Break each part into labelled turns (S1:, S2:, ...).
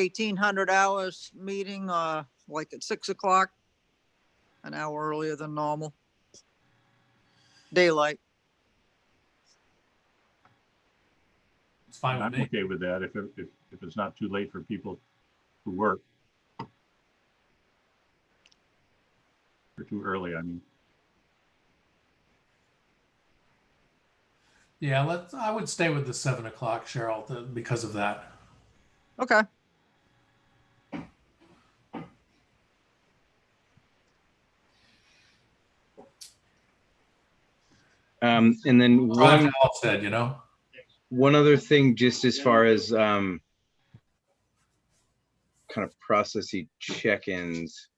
S1: eighteen hundred hours meeting, uh, like at six o'clock, an hour earlier than normal. Daylight.
S2: It's fine with
S3: I'm
S2: me.
S3: okay with that if, it- if, if it's not too late for people to work. Or too early, I mean,
S2: Yeah, let's, I would stay with the seven o'clock, Cheryl, th- because of that.
S1: Okay.
S4: Um, and then
S2: Roger
S4: one,
S2: Hall said, you know,
S4: one other thing, just as far as, um, kind of processy check-ins.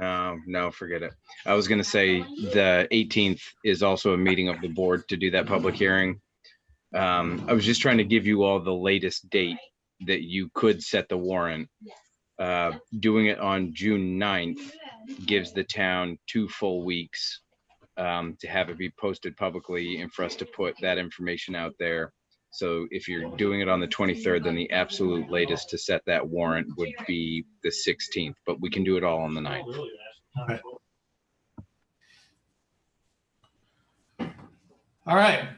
S4: Um, no, forget it. I was gonna say the eighteenth is also a meeting of the board to do that public hearing. Um, I was just trying to give you all the latest date that you could set the warrant. Uh, doing it on June 9th gives the town two full weeks um, to have it be posted publicly and for us to put that information out there. So if you're doing it on the 23rd, then the absolute latest to set that warrant would be the 16th, but we can do it all on the 9th.
S2: all right.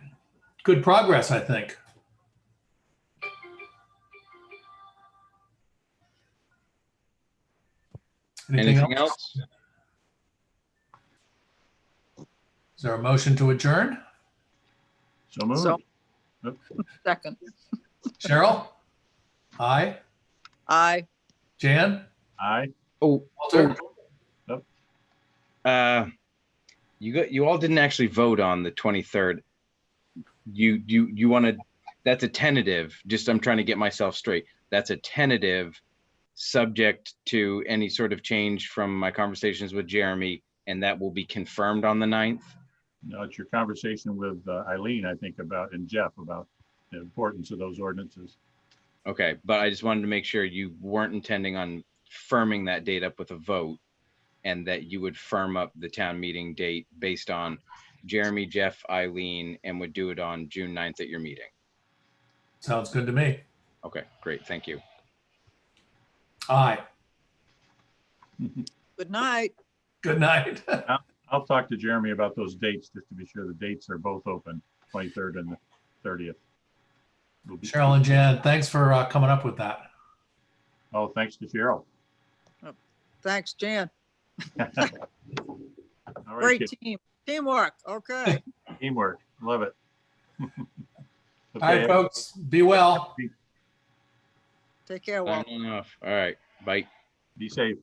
S2: Good progress, I think.
S4: Anything else?
S2: Is there a motion to adjourn?
S3: so
S1: So-
S3: moved.
S1: Second.
S2: Cheryl? Aye.
S1: Aye.
S2: Jan?
S3: Aye,
S4: Oh,
S2: Walter?
S4: uh, you got, you all didn't actually vote on the 23rd. You, you, you want to, that's a tentative, just I'm trying to get myself straight. That's a tentative, subject to any sort of change from my conversations with Jeremy, and that will be confirmed on the 9th.
S3: now it's your conversation with uh, Eileen, I think, about, and Jeff about the importance of those ordinances.
S4: Okay, but I just wanted to make sure you weren't intending on firming that date up with a vote and that you would firm up the town meeting date based on Jeremy, Jeff, Eileen, and would do it on June 9th at your meeting.
S2: Sounds good to me.
S4: Okay, great, thank you.
S2: Aye.
S1: Good night.
S2: Good night.
S3: I'll talk to Jeremy about those dates, just to be sure the dates are both open, 23rd and the 30th. We'll be-
S2: Cheryl and Jan, thanks for uh, coming up with that.
S3: Oh, thanks to Cheryl.
S1: Thanks, Jan.
S3: All right,
S1: Great
S3: kid,
S1: team. Teamwork. Okay.
S3: teamwork, love it.
S2: All right,
S3: Okay,
S2: folks, be well.
S1: Take care, Walt.
S4: Signing off. All right, bye.
S3: be safe.